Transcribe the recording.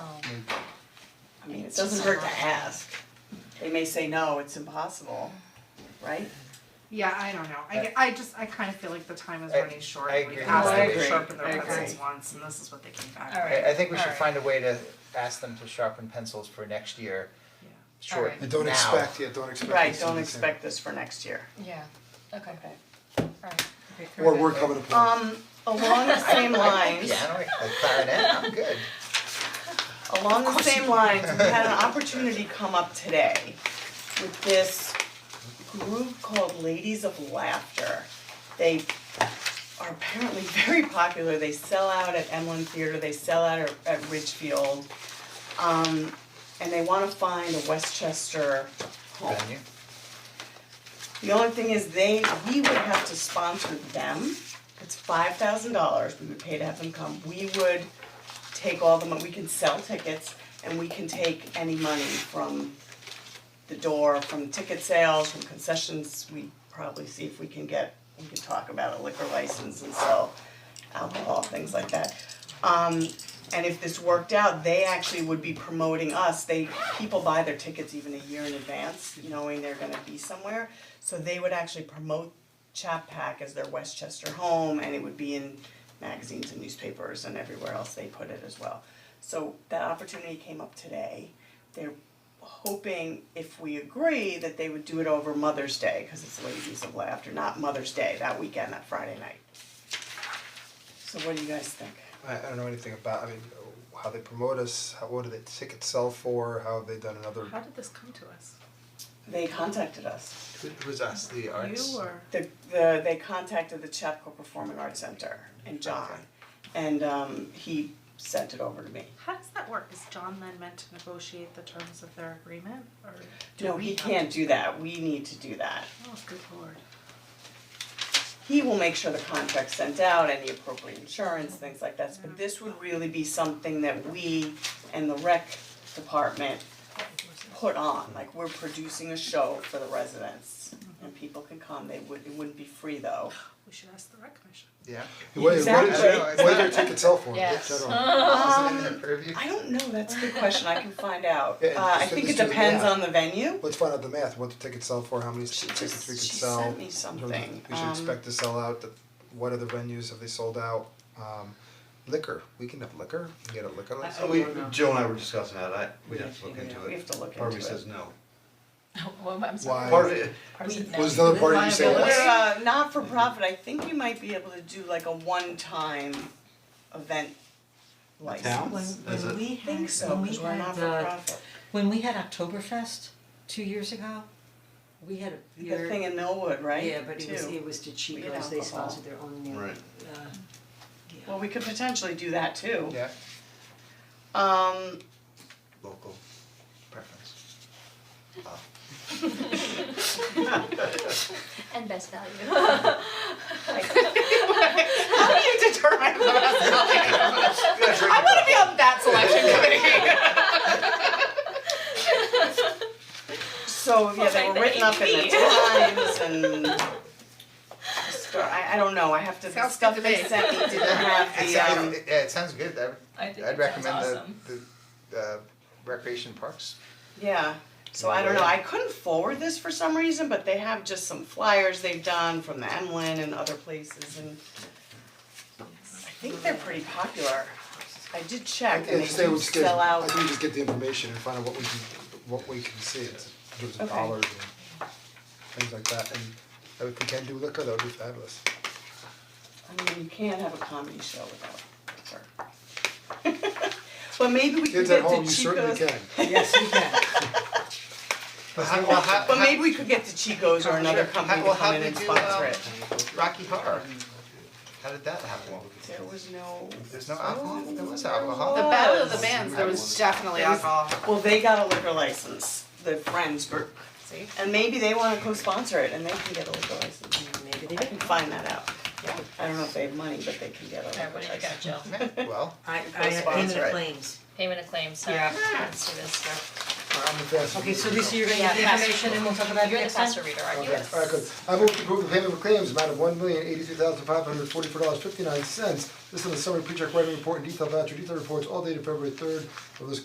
It doesn't just hurt to unlawful. ask. They may say, no, it's impossible, right? Yeah, I don't know, I get, I just, I kinda feel like the time is I- running short, I we've agree. asked I them to agree. sharpen I their agree. pencils once, and this is what they came back with. All right. I I think we should Alright. find a way to ask them to sharpen pencils for next year, Yeah. short now. Alright. And don't expect, yeah, don't expect. Right, it's gonna don't be expect this for next year. Yeah, okay, Okay. alright. the same. Or we're coming to play. Um, along the same lines, Piano, a clarinet, I'm good. along the same lines, we had an opportunity come up today with this group called Ladies of Laughter. They are apparently very popular, they sell out at Emlyn Theater, they sell out at, at Ridgefield. Um, and they wanna find a Westchester home. Venue. The only thing is they, we would have to sponsor them, it's five thousand dollars, we would pay to have them come, we would take all the money, we can sell tickets and we can take any money from the door, from ticket sales, from concessions, we probably see if we can get, we can talk about a liquor license and sell alcohol, things like that. Um, and if this worked out, they actually would be promoting us, they, people buy their tickets even a year in advance, knowing they're gonna be somewhere. So they would actually promote Chapac as their Westchester home, and it would be in magazines and newspapers and everywhere else they put it as well. So that opportunity came up today, they're hoping if we agree that they would do it over Mother's Day, cause it's Ladies of Laughter, not Mother's Day, that weekend, that Friday night. So what do you guys think? I I don't know anything about, I mean, how they promote us, how, what do they tickets sell for, how have they done another, How did this come to us? They contacted us. Who who's us, the arts? You or? The, the, they contacted the Chapco Performing Arts Center and John. And um, he sent it over to me. How does that work? Is John then meant to negotiate the terms of their agreement or do No, we he have- can't do that. We need to do that. Oh, good lord. He will make sure the contract's sent out, any appropriate insurance, things like that. But this would really be something that we and the rec department put on. Like, we're producing a show for the residents and people can come. They would, it wouldn't be free though. We should ask the rec commission. Yeah. Wait, what did Exactly. you, what did their tickets sell for, Yes. Which I don't- Isn't it in their purview? Um, I don't know, that's a good question, I can find out. Yeah, Uh, I just- think it just do the depends math. on the venue. Let's find out the math, what the tickets sell for, how many She tickets just- we could she sell. sent me in terms of- something, We should um, expect to sell out, the- what other venues have they sold out, um, liquor, we can have liquor, we can get a liquor license. So we, Joe and I were discussing that, I, we'd have to look into it. We have to look Part of me into it. says no. Well, I'm sorry. Why? Part of it, Was another party you said We're yes? Mm-hmm. uh not for profit, I think you might be able to do like a one-time event license. When Is it? when we I think had, so, when we because we're had not for the, profit. when we had Oktoberfest two years ago, we had a The thing beer, in Millwood, right? yeah, but it was, Too. it was to cheap, We had because they alcohol. sponsored their own, uh, Right. Well, we could potentially do that too. Yeah, Um, local preference. And best value. how do you determine the best value? I wanna be on that selection committee. So, yeah, they were written up in the Times and Star- I I don't know, I have to, the Sounds stuff good to they me. sent me didn't have It the sounds- um, it- yeah, it sounds good, I, I think I'd it sounds recommend the, awesome. the, uh, recreation parks. yeah. So I don't know, I couldn't forward this for some reason, but they have just some flyers they've done from the Emlyn and other places and I think they're pretty popular. I did check Yeah, and they just say we do just get, sell I out. think we just get the information and find out what we can, what we can see, it's, in terms of Okay. dollars and things like that, and if we can do liquor, that would be fabulous. I mean, you can't have a comedy show without her. But maybe we could Kids at get to Chico's. home, you certainly can. yes, we can. But how, well, how, But maybe we could get to Chico's or another company to Well, how come in did and you, sponsor um, it. Rocky Horror, how did that happen? There was no. There's no alcohol, there Oh. was alcohol. The battle of the bands, there was definitely alcohol. Well, they got a liquor license, the Friends group, See? and maybe they wanna co-sponsor it and they can get a liquor license. Maybe they I can didn't. find that out. I don't know if they have money, but they can get a liquor Alright, what license. do you got, Jill? Yeah, well, I, I have payment Right. of claims. Payment of claims, so Yeah. let's do this stuff. I'm the fastest. Okay, so Lisa, you're gonna get the Yeah. information and we'll talk about it You're the next time? faster reader, aren't you? Okay, alright, good. I move to approve the payment of claims amount of one million eighty-three thousand five hundred forty-four dollars fifty-nine cents. This is a summary pre-check writing report and detailed voucher, detailed reports all dated February third of this